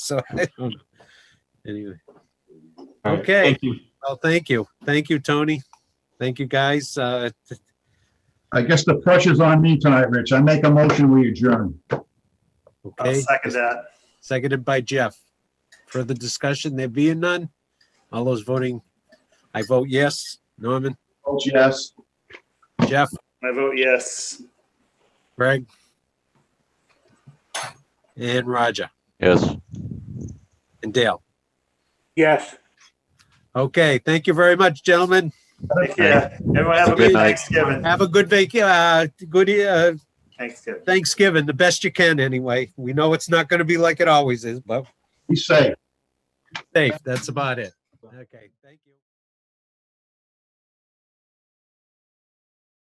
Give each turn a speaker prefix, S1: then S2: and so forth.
S1: So I don't, anyway,
S2: All right,
S1: Okay.
S2: Thank you.
S1: well, thank you. Thank you, Tony. Thank you, guys. Uh,
S3: I guess the pressure's on me tonight, Rich. I make a motion, we adjourn.
S4: I'll
S1: okay,
S4: second that.
S1: seconded by Jeff. Further discussion, there being none? All those voting, I vote yes. Norman,
S3: Oh, yes.
S1: Jeff,
S4: I vote yes.
S1: Greg. And Roger
S5: Yes.
S1: and Dale.
S4: Yes.
S1: Okay, thank you very much, gentlemen.
S4: Take care. Everyone have a
S5: Good
S4: good
S5: night.
S4: Thanksgiving.
S1: Have a good vac, uh, good, uh,
S4: Thanksgiving.
S1: Thanksgiving, the best you can anyway. We know it's not gonna be like it always is, but
S3: Be safe.
S1: safe, that's about it. Okay, thank you.